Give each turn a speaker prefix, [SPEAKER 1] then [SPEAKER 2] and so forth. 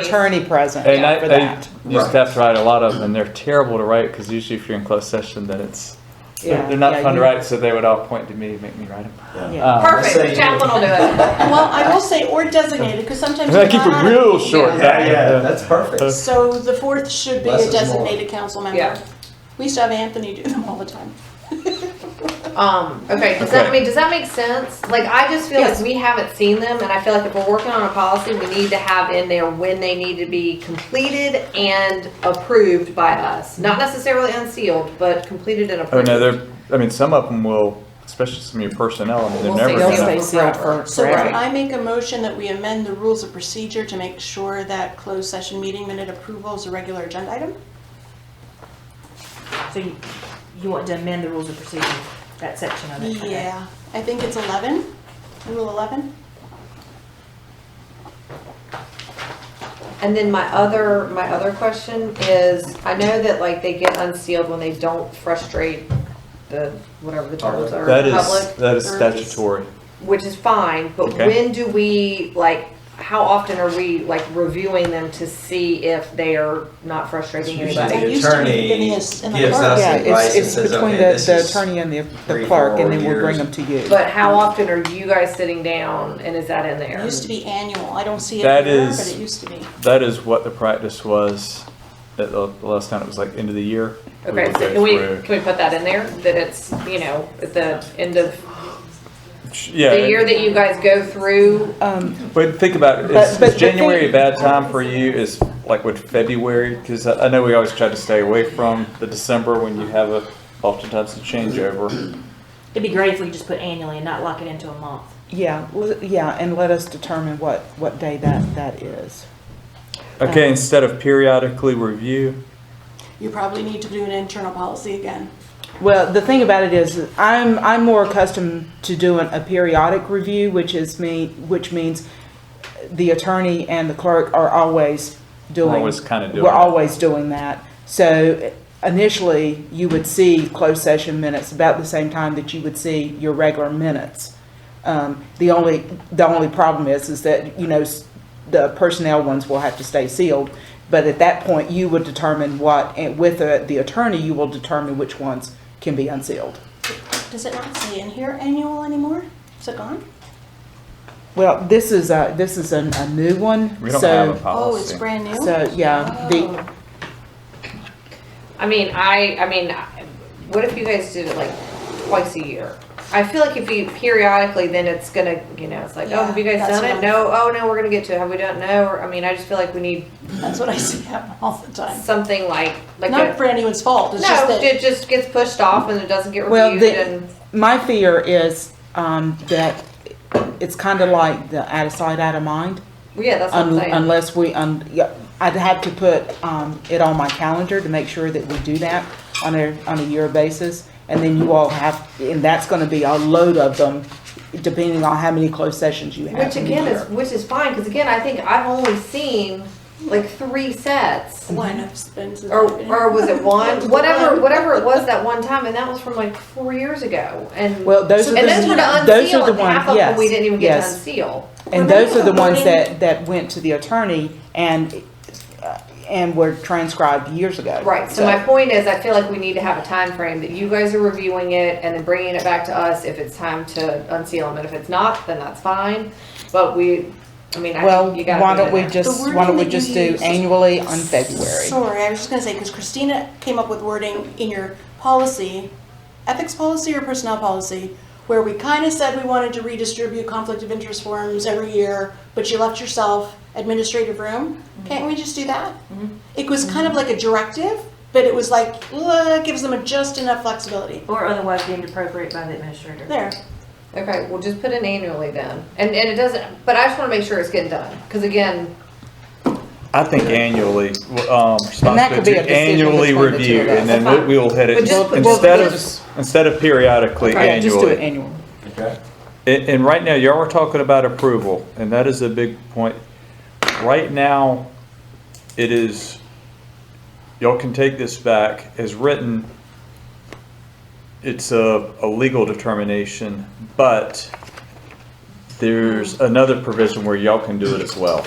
[SPEAKER 1] attorney present
[SPEAKER 2] And I,
[SPEAKER 1] for
[SPEAKER 2] I
[SPEAKER 1] that.
[SPEAKER 2] used to have to write a lot of them, and they're terrible to write, because usually if you're in closed session, then it's,
[SPEAKER 1] Yeah,
[SPEAKER 2] they're they're not Uh,
[SPEAKER 1] yeah,
[SPEAKER 2] fun to
[SPEAKER 1] you-
[SPEAKER 2] write, so they would all point to me, and make me write them.
[SPEAKER 3] Uh,
[SPEAKER 1] yeah.
[SPEAKER 3] Perfect, Jacqueline will do it.
[SPEAKER 4] Well, I will say, or designated, because sometimes.
[SPEAKER 2] I
[SPEAKER 4] you
[SPEAKER 2] keep it
[SPEAKER 4] wanna-
[SPEAKER 2] real short.
[SPEAKER 5] Yeah, yeah, that's perfect.
[SPEAKER 4] So the fourth should be
[SPEAKER 5] Less
[SPEAKER 4] a
[SPEAKER 5] is more.
[SPEAKER 4] designated council
[SPEAKER 3] Yeah.
[SPEAKER 4] member. We used to have Anthony do them all the time.
[SPEAKER 3] Um, okay, does that, I
[SPEAKER 2] Okay.
[SPEAKER 3] mean, does that make sense? Like, I just feel like
[SPEAKER 4] Yes.
[SPEAKER 3] we haven't seen them, and I feel like if we're working on a policy, we need to have in there when they need to be completed and approved by us. Not necessarily unsealed, but completed and
[SPEAKER 2] Oh,
[SPEAKER 3] approved.
[SPEAKER 2] no, they're, I mean, some of them will, especially some of your personnel, I mean,
[SPEAKER 3] We'll
[SPEAKER 2] they're never
[SPEAKER 3] say
[SPEAKER 1] They'll
[SPEAKER 3] Yeah.
[SPEAKER 2] gonna.
[SPEAKER 1] stay sealed for
[SPEAKER 4] So
[SPEAKER 1] forever.
[SPEAKER 4] I make a motion that we amend the rules of procedure to make sure that closed session meeting minute approval is a regular agenda item?
[SPEAKER 6] So you, you want to amend the rules of procedure, that section of it? okay.
[SPEAKER 4] Yeah, I think it's 11, rule 11.
[SPEAKER 3] And then my other, my other question is, I know that like they get unsealed when they don't frustrate the, whatever the terms are.
[SPEAKER 2] That
[SPEAKER 3] public.
[SPEAKER 2] is, that is
[SPEAKER 4] service.
[SPEAKER 2] statutory.
[SPEAKER 3] which is fine, but
[SPEAKER 2] Okay.
[SPEAKER 3] when do we, like, how often are we, like, reviewing them to see if they are not frustrating
[SPEAKER 5] Usually
[SPEAKER 4] I
[SPEAKER 5] the
[SPEAKER 3] anybody?
[SPEAKER 4] used to be
[SPEAKER 5] attorney
[SPEAKER 4] getting this in the
[SPEAKER 5] gives
[SPEAKER 4] clerk.
[SPEAKER 5] us
[SPEAKER 1] Yeah,
[SPEAKER 5] advice
[SPEAKER 1] it's,
[SPEAKER 5] and
[SPEAKER 1] it's
[SPEAKER 5] says,
[SPEAKER 1] between
[SPEAKER 5] okay,
[SPEAKER 1] the,
[SPEAKER 5] this
[SPEAKER 1] the
[SPEAKER 5] is.
[SPEAKER 1] attorney and the,
[SPEAKER 5] three,
[SPEAKER 1] the clerk, and
[SPEAKER 5] four
[SPEAKER 1] then we'll bring
[SPEAKER 5] years.
[SPEAKER 1] them to you.
[SPEAKER 3] But how often are you guys sitting down and is that in
[SPEAKER 4] It
[SPEAKER 3] there?
[SPEAKER 4] used to be annual. I don't see
[SPEAKER 2] That
[SPEAKER 4] it here, but
[SPEAKER 2] is-
[SPEAKER 4] it used to be.
[SPEAKER 2] That is what the practice was, at the the last time, it was like end of the year. we
[SPEAKER 3] Okay,
[SPEAKER 2] would
[SPEAKER 3] so
[SPEAKER 2] go
[SPEAKER 3] can we,
[SPEAKER 2] through.
[SPEAKER 3] can we put that in there, that it's, you know, at the end of
[SPEAKER 2] Yeah.
[SPEAKER 3] the year that you guys go through?
[SPEAKER 1] Um,
[SPEAKER 2] But think about it,
[SPEAKER 1] But-
[SPEAKER 2] is,
[SPEAKER 1] but
[SPEAKER 2] is
[SPEAKER 1] the
[SPEAKER 2] January a
[SPEAKER 1] thing-
[SPEAKER 2] bad time for you? Is like with February? Because I, I know we always try to stay away from the December when you have a, oftentimes a changeover.
[SPEAKER 6] It'd be great if we could just put annually and not lock it into a month.
[SPEAKER 1] Yeah, l- yeah, and let us determine what, what day that, that is.
[SPEAKER 2] Okay,
[SPEAKER 1] Um,
[SPEAKER 2] instead of periodically review,
[SPEAKER 4] You probably need to do an internal policy again.
[SPEAKER 1] Well, the thing about it is, I'm, I'm more accustomed to doing a periodic review, which is me, which means the attorney and the clerk are always doing.
[SPEAKER 2] always kinda doing
[SPEAKER 1] We're
[SPEAKER 2] that.
[SPEAKER 1] always doing that. So initially, you would see closed session minutes about the same time that you would see your regular minutes. Um, the only, the only problem is, is that, you know, s- the personnel ones will have to stay sealed. But at that point, you would determine what, and with the the attorney, you will determine which ones can be unsealed.
[SPEAKER 4] Does it not say in here annual anymore? Is it gone?
[SPEAKER 1] Well, this is a, this is a, a new one,
[SPEAKER 2] we don't have a
[SPEAKER 1] so,
[SPEAKER 4] Oh, it's
[SPEAKER 2] policy.
[SPEAKER 4] brand new?
[SPEAKER 1] so, yeah, the,
[SPEAKER 4] Oh.
[SPEAKER 3] I mean, I, I mean, I- what if you guys did it like twice a year? I feel like if you periodically, then it's gonna, you know, it's like, oh, have you
[SPEAKER 4] Yeah,
[SPEAKER 3] guys
[SPEAKER 4] that's
[SPEAKER 3] done
[SPEAKER 4] what
[SPEAKER 3] it?
[SPEAKER 4] I'm-
[SPEAKER 3] No, oh, no, we're gonna get to it. Have we done? it? No, or, I mean, I just feel like we need
[SPEAKER 4] That's what I see happen all the time.
[SPEAKER 3] something like, like.
[SPEAKER 4] Not
[SPEAKER 3] a-
[SPEAKER 4] for anyone's fault, it's
[SPEAKER 3] No,
[SPEAKER 4] just that,
[SPEAKER 3] it just gets pushed off and it doesn't get
[SPEAKER 1] Well,
[SPEAKER 3] reviewed
[SPEAKER 1] the-
[SPEAKER 3] and,
[SPEAKER 1] my fear is, um, that it's kind of like the out of sight, out of mind.
[SPEAKER 3] well, yeah, that's what I'm
[SPEAKER 1] Un-
[SPEAKER 3] saying.
[SPEAKER 1] Unless we, un- yeah, I'd have to put um, it on my calendar to make sure that we do that on a, on a year basis. And then you all have, and that's going to be a load of them, depending on how many closed sessions you have
[SPEAKER 3] Which
[SPEAKER 1] in a
[SPEAKER 3] again is,
[SPEAKER 1] year.
[SPEAKER 3] which is fine, cause again, I think I've only seen like three sets.
[SPEAKER 4] one of Spence's.
[SPEAKER 3] or or was it one? Whatever whatever it was that one time, and that was from like four years ago. And
[SPEAKER 1] Well, those are
[SPEAKER 3] and those were to
[SPEAKER 1] the,
[SPEAKER 3] unseal,
[SPEAKER 1] those are the
[SPEAKER 3] and half
[SPEAKER 1] ones,
[SPEAKER 3] of them we
[SPEAKER 1] yes,
[SPEAKER 3] didn't even get to
[SPEAKER 1] yes.
[SPEAKER 3] unseal.
[SPEAKER 1] And those are the ones that, that went to the attorney and, uh, and were transcribed years ago.
[SPEAKER 3] Right. So my point is, I feel like we need to have a time frame that you guys are reviewing it and then bringing it back to us if it's time to unseal them, and if it's not, then that's fine. But we, I mean, I
[SPEAKER 1] Well,
[SPEAKER 3] think you got.
[SPEAKER 1] why don't we
[SPEAKER 4] The
[SPEAKER 1] just,
[SPEAKER 4] wording
[SPEAKER 1] why don't we
[SPEAKER 4] that you
[SPEAKER 1] just do
[SPEAKER 4] used-
[SPEAKER 1] annually on February?
[SPEAKER 4] Sorry, I was just gonna say, because Christina came up with wording in your policy, ethics policy or personnel policy, where we kind of said we wanted to redistribute conflict of interest forms every year, but you left yourself administrative room. Can't we just do that? It was kind of like a directive, but it was like, uh, gives them just enough flexibility.
[SPEAKER 6] Or otherwise deemed appropriate by the administrator.
[SPEAKER 4] There.
[SPEAKER 3] Okay, we'll just put in annually then, and and it doesn't. But I just want to make sure it's getting done, because again,
[SPEAKER 2] I think annually, w- um,
[SPEAKER 1] And that could be
[SPEAKER 2] responsibility,
[SPEAKER 1] a decision
[SPEAKER 2] annually
[SPEAKER 1] between the two
[SPEAKER 2] review,
[SPEAKER 1] of us.
[SPEAKER 2] and then we- we will hit
[SPEAKER 3] But
[SPEAKER 2] it,
[SPEAKER 3] just-
[SPEAKER 1] well,
[SPEAKER 2] instead
[SPEAKER 1] just-
[SPEAKER 2] of, instead of periodically,
[SPEAKER 1] Okay, Just do it
[SPEAKER 2] annually.
[SPEAKER 1] annually.
[SPEAKER 5] Okay.
[SPEAKER 2] And, and right now, y'all are talking about approval, and that is a big point. Right now, it is, y'all can take this back, as written, it's a, a legal determination, but there's another provision where y'all can do it as well.